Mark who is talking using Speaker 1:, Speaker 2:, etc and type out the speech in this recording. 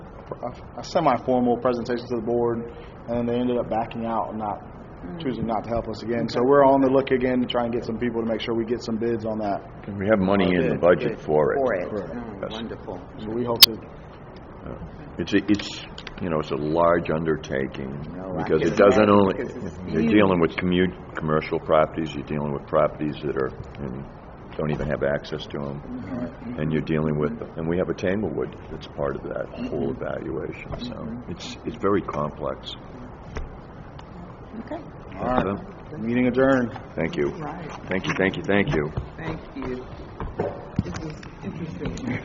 Speaker 1: a, a semi-formal presentation to the board, and then they ended up backing out and not choosing not to help us again. So we're on the look again to try and get some people to make sure we get some bids on that.
Speaker 2: We have money in the budget for
Speaker 3: for
Speaker 2: it.
Speaker 3: it.
Speaker 1: Correct.
Speaker 3: Oh,
Speaker 2: Yes.
Speaker 3: Wonderful.
Speaker 1: So we hope to
Speaker 2: It's, a- it's, you know, it's a large undertaking,
Speaker 3: No, I
Speaker 2: because
Speaker 3: can
Speaker 2: it doesn't
Speaker 3: imagine,
Speaker 2: only,
Speaker 3: because it's
Speaker 2: you're dealing with commute, commercial properties, you're dealing with properties that are, and don't even have access to
Speaker 3: Mm-hmm.
Speaker 2: them, and you're dealing with, and we have a Tanglewood that's part of that whole
Speaker 3: Mm-hmm.
Speaker 2: evaluation, so it's, it's very complex.
Speaker 3: Okay.
Speaker 1: All right. Meeting adjourned.
Speaker 2: Thank you.
Speaker 3: Right.
Speaker 2: Thank you, thank you, thank you.
Speaker 3: Thank you. This is interesting.